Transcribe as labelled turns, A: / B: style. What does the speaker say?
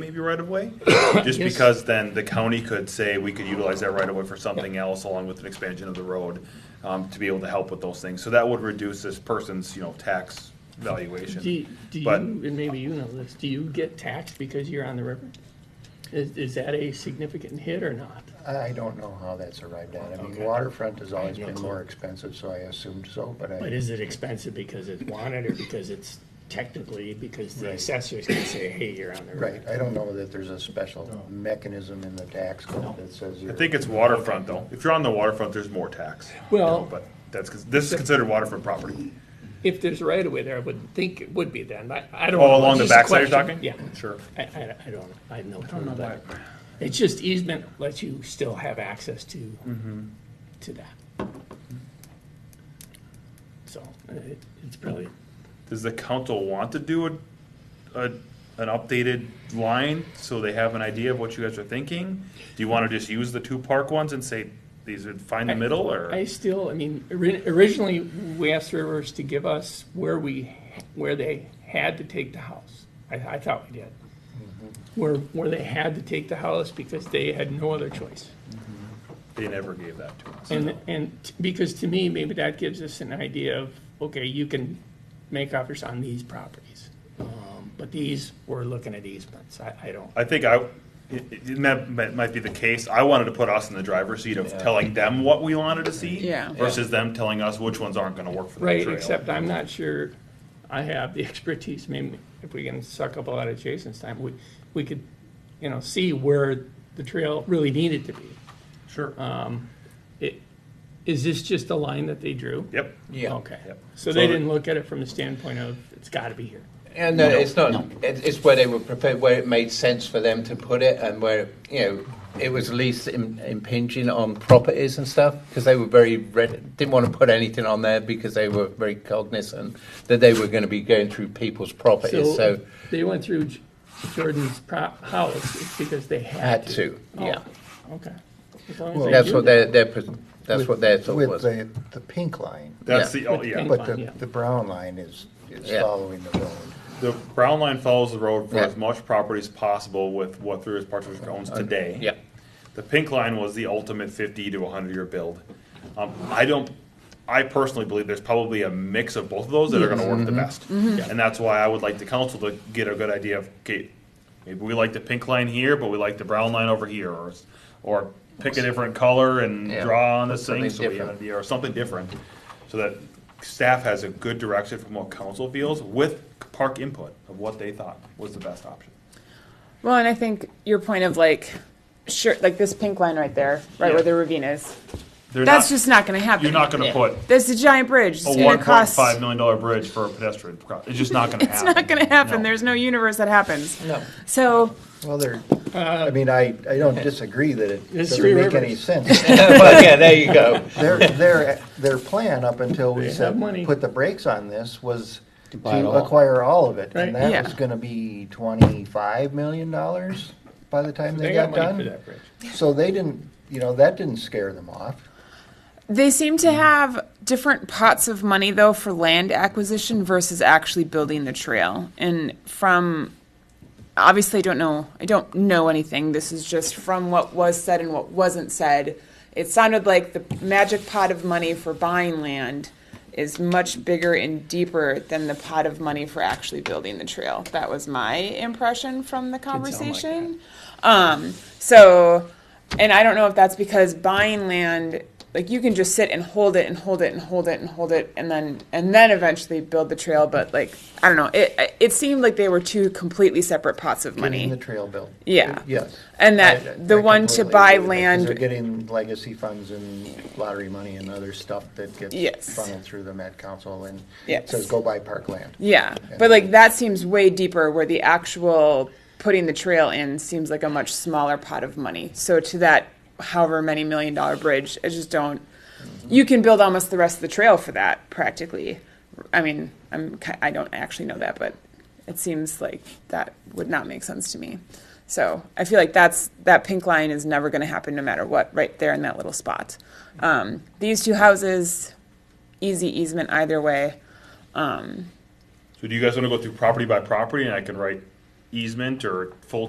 A: maybe right of way? Just because then the county could say we could utilize that right of way for something else along with an expansion of the road um, to be able to help with those things. So that would reduce this person's, you know, tax valuation.
B: Do, do you,
A: But-
B: and maybe you know this, do you get taxed because you're on the river? Is, is that a significant hit or not?
C: I don't know how that's arrived at. I mean,
B: Okay.
C: waterfront has always
B: Yeah,
C: been
B: cool.
C: more expensive, so I assumed so, but
B: But
C: I,
B: is it expensive because it's wanted or because it's technically, because the
C: Right.
B: assessors can say, hey, you're on the river?
C: right, I don't know that there's a special mechanism in the tax code that says
A: I
C: you're.
A: think it's waterfront though. If you're on the waterfront, there's more tax.
B: Well-
A: But that's, 'cause this is considered waterfront property.
B: If there's right of way there, I wouldn't think it would be then. I, I don't.
A: Oh,
B: know.
A: along the
B: It's just a
A: backside you're
B: question.
A: talking?
B: Yeah.
A: Sure.
B: I, I, I don't, I have no clue about it. It's just easement lets you still have access to, to that. So it, it's probably,
A: Does the council want to do a, a, an updated line so they have an idea of what you guys are thinking? Do you want to just use the two park ones and say, these would find the middle or?
B: I still, I mean, ori- originally, we asked Rivers to give us where we, where they had to take the house. I, I thought we did. Where, where they had to take the house because they had no other choice.
A: They never gave that to us.
B: And, and t- because to me, maybe that gives us an idea of, okay, you can make offers on these properties. Um, But these, we're looking at easements. I, I don't,
A: I think I, it, it might, might- might be the case, I wanted to put us in the driver's seat of telling them what we wanted to see.
D: Yeah.
A: Versus them telling us which ones aren't gonna work for the trail.
B: right, except I'm not sure I have the expertise. Maybe if we can suck up a lot of Jason's time, we, we could, you know, see where the trail really needed to be.
A: Sure,
B: Um, It- Is this just a line that they drew?
A: yep.
E: Yeah.
B: Okay.
A: Yep.
B: So
A: So-
B: they didn't look at it from the standpoint of, it's gotta be here.
E: And uh, it's not. It, it's where they were prepared, where it made sense for them to put it, and where you know it was least Im- impinging on properties and stuff because they were very red, didn't want to put anything on there because they were very cognizant that they were going to be going through people's properties, so,
B: So they went through J- Jordan's prop house it's because they had
E: had
B: to.
E: to. Yeah,
B: Oh, Okay. As long as
E: that's
B: they
E: what
B: do
E: their their pres- that's what their thought
C: With
E: was.
C: the, the pink line,
A: That's
E: Yeah.
A: the, oh, yeah,
B: Pink
C: but
B: line,
C: the,
B: yeah.
C: the brown line is, is
E: Yeah.
C: following the road.
A: the brown line follows the road for
E: Yeah. Uh,
A: as much property as possible with what Thruis Partridge owns today.
E: yeah.
A: The pink line was the ultimate fifty to hundred year build. Um, I don't, I personally believe there's probably a mix of both of those that are gonna
E: Mm-hmm.
A: work the best. And that's why I would like the council to get a good idea of, okay, maybe we like the pink line here, but we like the brown line over here, or, or pick a different color and
E: Yeah.
A: draw on this thing,
E: Something
A: so we have an
E: different.
A: idea, or something different. So that staff has a good direction from what council feels with park input of what they thought was the best option.
D: Well, and I think your point of like, sure, like this pink line right there, right
A: Yeah.
D: where the ravine is,
A: They're
D: that's
A: not-
D: just not going to happen.
A: You're not gonna put
D: That's a giant bridge. It's
A: a
D: going
A: one
D: to
A: point
D: cost.
A: five million dollar bridge for a pedestrian. cro- It's just not gonna
D: It's
A: happen.
D: not going to happen.
A: No.
D: There's no universe that happens.
E: No.
D: So
C: Well, there, I mean, I, I don't disagree that it
B: There's
C: doesn't
B: uh, three
C: make any
B: rivers.
C: sense.
E: well, yeah, there you go.
C: Their, their, their plan up until we
B: They
C: said,
B: have money.
C: put the brakes on this was
F: buy it
C: to
F: all.
C: acquire all of it.
B: Right.
C: And that
D: Yeah.
C: was gonna be twenty-five million dollars by the time
B: They
C: they
B: got
C: got
B: money for
C: done.
B: that bridge.
C: So they didn't, you know, that didn't scare them off.
D: they seem to have different pots of money though for land acquisition versus actually building the trail. And from obviously I don't know I don't know anything. This is just from what was said and what wasn't said. It sounded like the magic pot of money for buying land is much bigger and deeper than the pot of money for actually building the trail. That was my impression from the conversation. Um, so and I don't know if that's because buying land like you can just sit and hold it and hold it and hold it and hold it and then and then eventually build the trail but like I don't know it it seemed like they were two completely separate pots of money.
C: Getting the trail built.
D: Yeah.
C: Yes.
D: And that-
C: I- I-
D: the
C: I
D: one to
C: completely
D: buy
C: agree with that, 'cause They're
D: land-
C: getting legacy funds and lottery money and other stuff that
D: Yes.
C: gets funneled through the Met Council and
D: Yes.
C: says, go buy park land.
D: Yeah, but like that seems way deeper where the actual putting the trail in seems like a much smaller pot of money. So to that however many million dollar bridge, I just don't you can build almost the rest of the trail for that practically. I mean, I'm ki- I don't actually know that, but it seems like that would not make sense to me. So I feel like that's that pink line is never going to happen no matter what right there in that little spot. Um, these two houses, easy easement either way.
A: So do you guys want to go through property by property and I could write easement or full